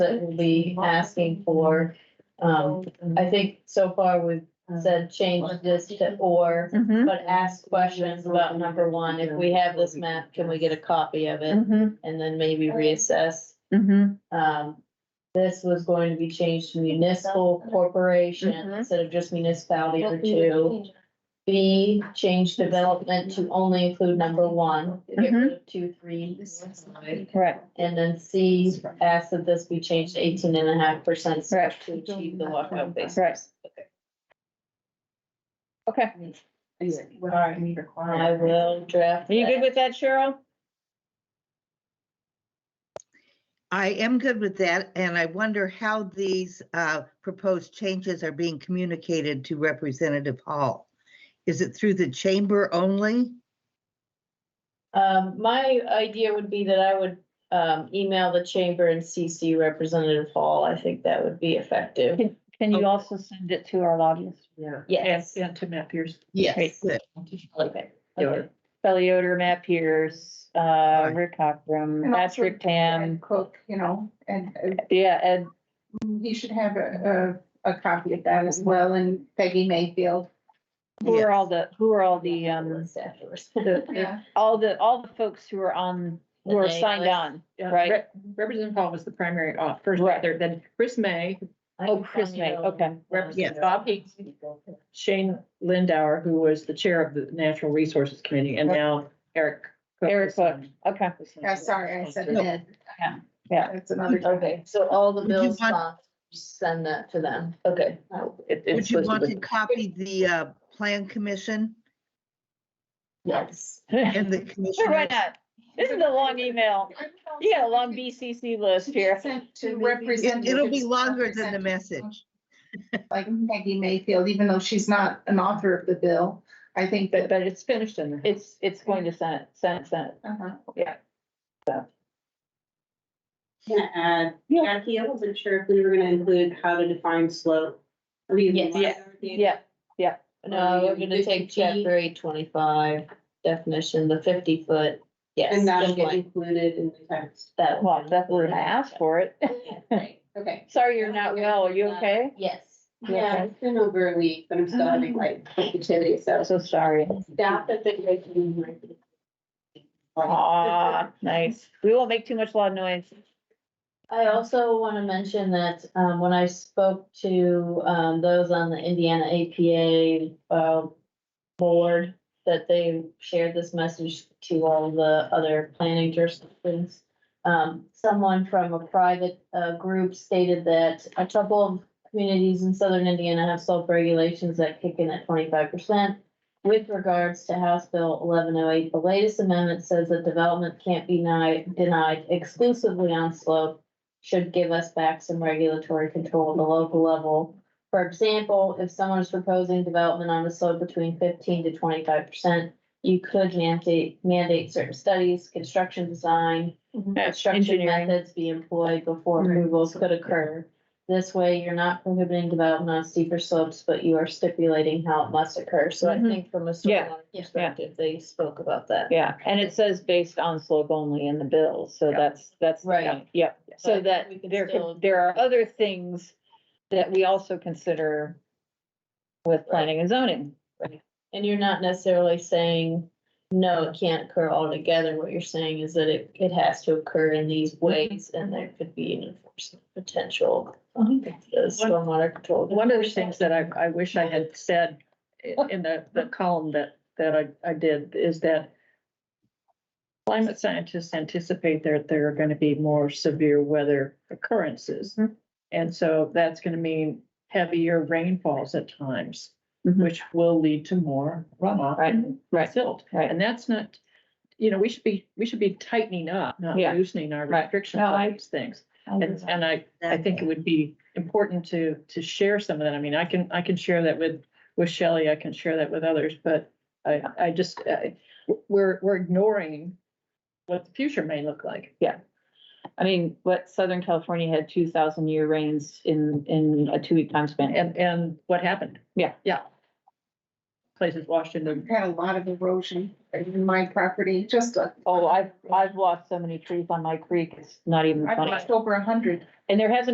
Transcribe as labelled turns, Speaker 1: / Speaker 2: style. Speaker 1: that we'll be asking for. Um, I think so far we've said change this to or,
Speaker 2: Mm-hmm.
Speaker 1: but ask questions about number one. If we have this map, can we get a copy of it?
Speaker 2: Mm-hmm.
Speaker 1: And then maybe reassess.
Speaker 2: Mm-hmm.
Speaker 1: Um, this was going to be changed to municipal corporation
Speaker 2: Mhm.
Speaker 1: instead of just municipality or two. B, change development to only include number one, get
Speaker 2: Mm-hmm.
Speaker 1: rid of two, three,
Speaker 2: Right.
Speaker 1: And then C, ask that this be changed to eighteen and a half percent to
Speaker 2: Right.
Speaker 1: achieve the walkout base.
Speaker 2: Right. Okay.
Speaker 1: I will draft.
Speaker 2: Are you good
Speaker 1: that.
Speaker 2: with that, Cheryl?
Speaker 3: I am good with that, and I wonder how these uh, proposed changes are being communicated to Representative Hall. Is it through the chamber only?
Speaker 1: Um, my idea would be that I would, um, email the chamber and CC Representative Hall. I think that would be effective.
Speaker 2: Can
Speaker 3: Okay.
Speaker 2: you also send it to our lobbyists?
Speaker 4: Oh. Yeah.
Speaker 1: Yes.
Speaker 4: And to Matt Pierce.
Speaker 2: Great.
Speaker 3: Good.
Speaker 1: Okay.
Speaker 4: Yeah.
Speaker 2: Kelly Oder, Matt Pierce, uh, Rick Hockram,
Speaker 5: And also
Speaker 2: Patrick Tam,
Speaker 5: And Cook, you know, and uh, mm,
Speaker 2: yeah, Ed,
Speaker 5: he should have a, a, a copy of that as well, and Peggy Mayfield.
Speaker 2: who
Speaker 3: Yes.
Speaker 2: are all the, who are all the, um,
Speaker 1: Afterwards, afterwards.
Speaker 5: Yeah.
Speaker 2: all the, all the folks who are on, who are signed on, right?
Speaker 4: Representative Hall was the primary au- first
Speaker 2: Right.
Speaker 4: author, then Chris May,
Speaker 2: Oh, Chris May, okay.
Speaker 4: Representative Bob Hicks, Shane Lindauer, who was the chair of the Natural Resources Committee, and now Eric. Cook. um,
Speaker 2: Eric Cook, okay.
Speaker 5: Yeah, sorry, I said it.
Speaker 2: Yeah. Yeah.
Speaker 5: That's another.
Speaker 1: Okay, so all the
Speaker 3: Would you
Speaker 1: bills,
Speaker 3: want-
Speaker 1: uh, send that to them. Okay.
Speaker 4: It-
Speaker 3: Would
Speaker 4: It's
Speaker 3: you want
Speaker 4: supposed
Speaker 3: to
Speaker 4: to be
Speaker 3: copy the uh, Plan Commission
Speaker 1: Yes.
Speaker 2: Sure,
Speaker 3: and the
Speaker 2: why
Speaker 3: commissioner?
Speaker 2: not? This is a long email. You got a long BCC list here.
Speaker 5: Sent
Speaker 1: It-
Speaker 5: To
Speaker 1: it'll
Speaker 5: represent.
Speaker 3: It'll be longer than the message.
Speaker 5: Like Peggy Mayfield, even though she's not an author of the bill, I think
Speaker 4: but,
Speaker 5: that.
Speaker 4: but it's finished in there.
Speaker 2: It's, it's going to Senate, Senate, Senate.
Speaker 5: uh-huh.
Speaker 6: Can I add, Jackie, I wasn't sure if we were gonna include how to define slope. Are we?
Speaker 1: Yes.
Speaker 6: gonna-
Speaker 2: Yeah,
Speaker 1: No, we're uh, gonna take
Speaker 6: 50 feet,
Speaker 1: chapter eight twenty-five definition, the fifty foot, yes.
Speaker 6: And that'll
Speaker 1: just
Speaker 6: get
Speaker 1: like
Speaker 6: included in the text.
Speaker 1: That
Speaker 2: well,
Speaker 1: one.
Speaker 2: that's what I asked for it.
Speaker 6: Right, okay.
Speaker 2: Sorry, you're not well. Are you okay?
Speaker 1: Yes.
Speaker 6: Yeah, it's been over a week, but I'm still having like sensitivity, so
Speaker 2: I'm so sorry.
Speaker 6: staff has been making.
Speaker 2: Ah, nice. We won't make too much loud noise.
Speaker 1: I also wanna mention that, um, when I spoke to, um, those on the Indiana APA, uh, board, that they shared this message to all the other planning jurisdictions. Um, someone from a private, uh, group stated that a couple of communities in southern Indiana have self-regulations that kick in at twenty-five percent. With regards to House Bill eleven oh eight, the latest amendment says that development can't be denied, denied exclusively on slope. Should give us back some regulatory control at the local level. For example, if someone is proposing development on a slope between fifteen to twenty-five percent, you could mandate, mandate certain studies, construction design, construction
Speaker 2: Engineering.
Speaker 1: methods be employed before
Speaker 2: Right.
Speaker 1: approvals could occur. This way, you're not prohibiting development on steeper slopes, but you are stipulating how it must occur. So I
Speaker 2: Mhm.
Speaker 1: think from a
Speaker 2: Yeah.
Speaker 1: storyline perspective, they spoke about that.
Speaker 2: Yeah, and it says based on slope only in the bill, so that's, that's.
Speaker 1: Right.
Speaker 2: Yep,
Speaker 1: But I
Speaker 2: so
Speaker 1: think
Speaker 2: that
Speaker 1: we can
Speaker 2: there,
Speaker 1: still-
Speaker 2: could- there are other things that we also consider with planning and zoning.
Speaker 1: And you're not necessarily saying, no, it can't occur altogether. What you're saying is that it, it has to occur in these
Speaker 4: Mhm.
Speaker 1: ways and there could be an enforcement potential. on The stormwater control.
Speaker 4: One of the things that I, I wish I had said i- in the, the column that, that I, I did is that climate scientists anticipate that there are gonna be more severe weather occurrences.
Speaker 2: Mhm.
Speaker 4: And so that's gonna mean heavier rainfalls at times,
Speaker 2: Mhm.
Speaker 4: which will lead to more runoff
Speaker 2: Right,
Speaker 4: and
Speaker 2: right,
Speaker 4: silt.
Speaker 2: right.
Speaker 4: And that's not, you know, we should be, we should be tightening up, not
Speaker 2: Yeah.
Speaker 4: loosening our
Speaker 2: Right.
Speaker 4: restrictions
Speaker 2: No, I-
Speaker 4: on these things. And, and I, I think it would be important to, to share some of that. I mean, I can, I can share that with, with Shelley, I can share that with others, but I, I just, I, we're, we're ignoring what the future may look like.
Speaker 2: I mean, what Southern California had two thousand year rains in, in a two week time span.
Speaker 4: And, and what happened?
Speaker 2: Yeah.
Speaker 4: Yeah. places washed into.
Speaker 5: We've had a lot of erosion in my property, just a.
Speaker 2: Oh, I've, I've lost so many trees on my creek, it's not even
Speaker 5: I've
Speaker 2: funny.
Speaker 5: lost over a hundred.
Speaker 2: And there hasn't